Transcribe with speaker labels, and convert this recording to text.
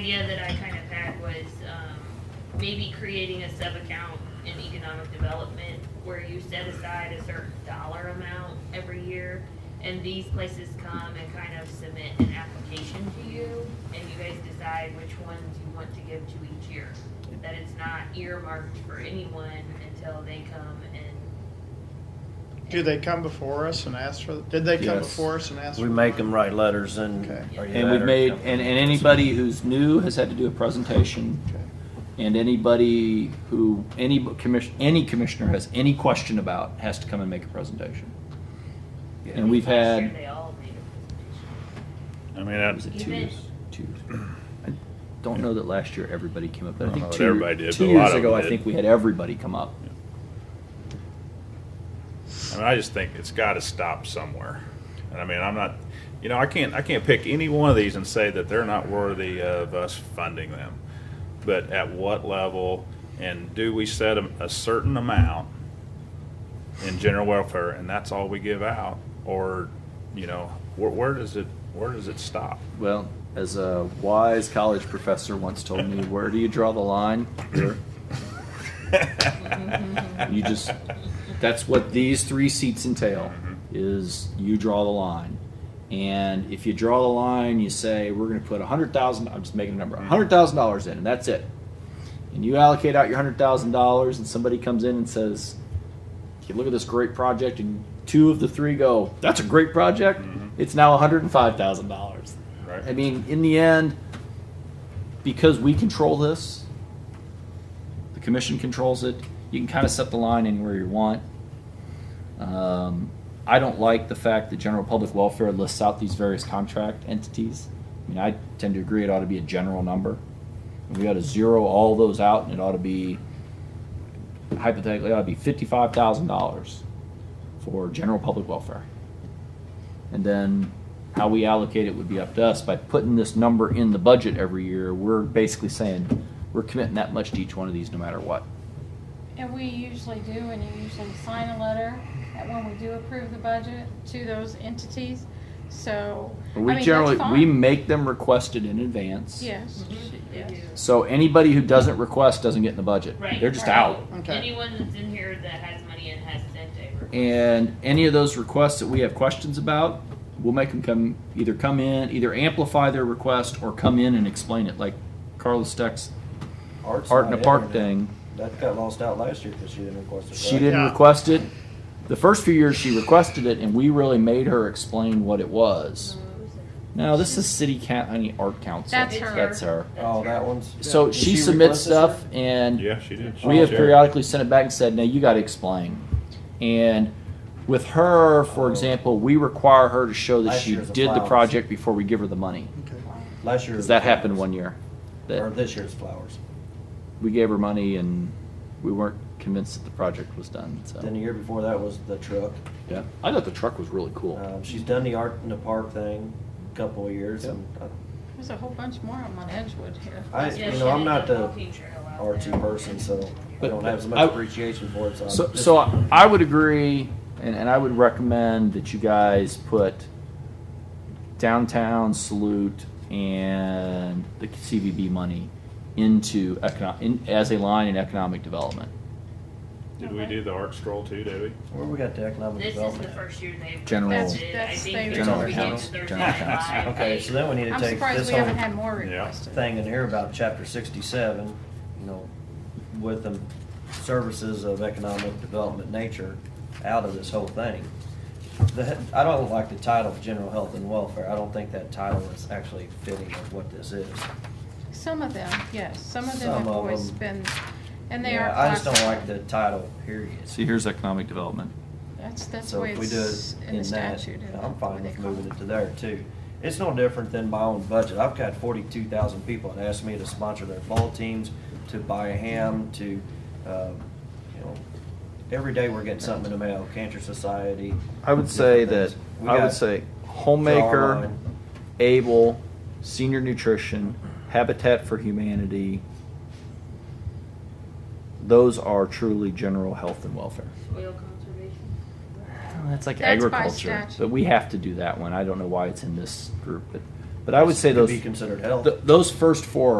Speaker 1: idea that I kind of had was, um, maybe creating a sub-account in economic development where you set aside a certain dollar amount every year, and these places come and kind of submit an application to you, and you guys decide which ones you want to give to each year. That it's not earmarked for anyone until they come and.
Speaker 2: Do they come before us and ask for, did they come
Speaker 3: Yes.
Speaker 2: before us and ask?
Speaker 4: We
Speaker 2: for
Speaker 4: make
Speaker 2: the
Speaker 4: them
Speaker 2: money?
Speaker 4: write letters and.
Speaker 2: Okay.
Speaker 4: or you
Speaker 3: And
Speaker 4: let
Speaker 3: we've
Speaker 4: her
Speaker 3: made,
Speaker 4: come.
Speaker 3: and, and anybody who's new has had to do a presentation.
Speaker 2: Okay.
Speaker 3: And anybody who, any commission, any commissioner has any question about has to come and make a presentation. And we've
Speaker 1: Last year,
Speaker 3: had,
Speaker 1: They all made a
Speaker 5: I mean,
Speaker 3: was
Speaker 5: that's,
Speaker 3: it two
Speaker 1: Even-
Speaker 3: years? Two years. I don't know that last year everybody came up, but I
Speaker 5: I don't know
Speaker 3: think
Speaker 5: that
Speaker 3: two,
Speaker 5: everybody did,
Speaker 3: two
Speaker 5: but a lot
Speaker 3: years
Speaker 5: of
Speaker 3: ago,
Speaker 5: them
Speaker 3: I
Speaker 5: did.
Speaker 3: think we had everybody come up.
Speaker 5: I mean, I just think it's got to stop somewhere. And I mean, I'm not, you know, I can't, I can't pick any one of these and say that they're not worthy of us funding them. But at what level, and do we set a, a certain amount in general welfare, and that's all we give out? Or, you know, where, where does it, where does it stop?
Speaker 3: Well, as a wise college professor once told me, where do you draw the line? You just, that's what these three seats entail, is you draw the line. And if you draw the line, you say, we're gonna put a hundred thousand, I'm just making a number, a hundred thousand dollars in, and that's it. And you allocate out your hundred thousand dollars, and somebody comes in and says, you look at this great project, and two of the three go, that's a great project, it's now hundred and five thousand dollars.
Speaker 5: Right.
Speaker 3: I mean, in the end, because we control this, the commission controls it. You can kind of set the line anywhere you want. Um, I don't like the fact that general public welfare lists out these various contract entities. I mean, I tend to agree it ought to be a general number. We ought to zero all those out, and it ought to be hypothetically it ought to be fifty-five thousand dollars for general public welfare. And then how we allocate it would be up to us. By putting this number in the budget every year, we're basically saying we're committing that much to each one of these no matter what.
Speaker 6: And we usually do, and you usually sign a letter that when we do approve the budget to those entities, so. I
Speaker 3: But
Speaker 6: mean,
Speaker 3: we
Speaker 6: that's
Speaker 3: generally, we
Speaker 6: fine.
Speaker 3: make them requested in advance.
Speaker 6: Yes,
Speaker 1: presentation.
Speaker 6: yes.
Speaker 1: Mhm, They do.
Speaker 3: So anybody who doesn't request doesn't get in the budget.
Speaker 1: Right.
Speaker 3: They're just
Speaker 1: right.
Speaker 3: out.
Speaker 2: Okay.
Speaker 1: Anyone that's in here that has money and has sent a request.
Speaker 3: And any of those requests that we have questions about, we'll make them come, either come in, either amplify their request or come in and explain it, like Carlos Steck's
Speaker 7: Art's
Speaker 3: Art in
Speaker 7: not
Speaker 3: a Park
Speaker 7: there.
Speaker 3: thing.
Speaker 7: That got lost out last year because she didn't request it.
Speaker 3: She
Speaker 7: right?
Speaker 3: didn't
Speaker 2: Yeah.
Speaker 3: request it. The first few years she requested it, and we really made her explain what it was. No, this is city county art council.
Speaker 6: That's her.
Speaker 3: That's her.
Speaker 7: Oh, that one's.
Speaker 3: So
Speaker 7: Did
Speaker 3: she,
Speaker 7: she
Speaker 3: submits
Speaker 7: request this
Speaker 3: stuff, and
Speaker 5: Yeah, she did.
Speaker 3: we have
Speaker 5: Sure.
Speaker 3: periodically sent it back and said, "Now you got to explain." And with her, for
Speaker 7: Oh.
Speaker 3: example, we require her to show that
Speaker 7: Last
Speaker 3: she
Speaker 7: year's a
Speaker 3: did the
Speaker 7: flowers.
Speaker 3: project before we give her the money.
Speaker 2: Okay.
Speaker 7: Last year.
Speaker 3: Because that happened one year.
Speaker 7: Or
Speaker 3: That
Speaker 7: this year's flowers.
Speaker 3: we gave her money, and we weren't convinced that the project was done. So
Speaker 7: Then the year before that was the truck.
Speaker 3: yeah, I thought the truck was really cool.
Speaker 7: Um, she's done the art in the park thing a couple of years
Speaker 3: Yep.
Speaker 7: and I-
Speaker 6: there's a whole bunch more of them on Edgewood here.
Speaker 7: I,
Speaker 1: Yeah,
Speaker 7: you
Speaker 1: she
Speaker 7: know, I'm
Speaker 1: did
Speaker 7: not
Speaker 1: the
Speaker 7: the
Speaker 1: walking trail out
Speaker 7: artsy
Speaker 1: there.
Speaker 7: person, so I
Speaker 3: But-
Speaker 7: don't have as
Speaker 3: I-
Speaker 7: much appreciation for it, so. I'm
Speaker 3: So,
Speaker 7: just-
Speaker 3: so I, I would agree, and, and I would recommend that you guys put downtown salute and the CVB money into economic in, as a line in economic development.
Speaker 5: Did we do the art scroll too, did we?
Speaker 7: Where we got the economic
Speaker 1: This is the
Speaker 7: development? at?
Speaker 1: first year they've.
Speaker 3: General-
Speaker 1: requested. I
Speaker 6: That's- that's
Speaker 1: think
Speaker 6: they-
Speaker 1: they're
Speaker 3: General
Speaker 1: gonna begin
Speaker 3: accounts,
Speaker 1: their
Speaker 3: general
Speaker 1: July
Speaker 3: accounts.
Speaker 7: Okay, so then we need to
Speaker 6: I'm
Speaker 7: take
Speaker 6: surprised
Speaker 7: this
Speaker 6: we haven't
Speaker 7: whole
Speaker 6: had more
Speaker 5: Yeah.
Speaker 6: requested.
Speaker 7: thing in here about chapter sixty-seven, you know, with the services of economic development nature out of this whole thing. The, he- I don't like the title of general health and welfare. I don't think that title is actually fitting of what this is.
Speaker 6: Some of them, yes, some of them
Speaker 7: Some
Speaker 6: have
Speaker 7: of
Speaker 6: always
Speaker 7: them.
Speaker 6: been, and they are.
Speaker 7: Yeah, I just don't like
Speaker 6: classified.
Speaker 7: the title, period.
Speaker 3: See, here's economic development.
Speaker 6: That's, that's the
Speaker 7: So
Speaker 6: way
Speaker 7: if we do
Speaker 6: it's
Speaker 7: it
Speaker 6: in the
Speaker 7: in that,
Speaker 6: statute. and
Speaker 7: I'm
Speaker 6: the way
Speaker 7: fine
Speaker 6: they
Speaker 7: with
Speaker 6: call
Speaker 7: moving it to there too. It's no different than my own budget. I've got forty-two thousand people that ask me to sponsor their ball teams, to buy a ham, to, uh, you know, every day we're getting something in the mail, Cancer Society.
Speaker 3: I would say
Speaker 7: different
Speaker 3: that
Speaker 7: things. We
Speaker 3: I
Speaker 7: got-
Speaker 3: would say
Speaker 7: Draw a
Speaker 3: homemaker,
Speaker 7: line.
Speaker 3: able, senior nutrition, Habitat for Humanity. Those are truly general health and welfare.
Speaker 1: Oil conservation.
Speaker 3: Well, That's like
Speaker 6: That's by
Speaker 3: agriculture,
Speaker 6: statute.
Speaker 3: but we have to do that one. I don't know why it's in this group, but, but I would say
Speaker 7: Could
Speaker 3: those,
Speaker 7: Be considered health.
Speaker 3: th- those first four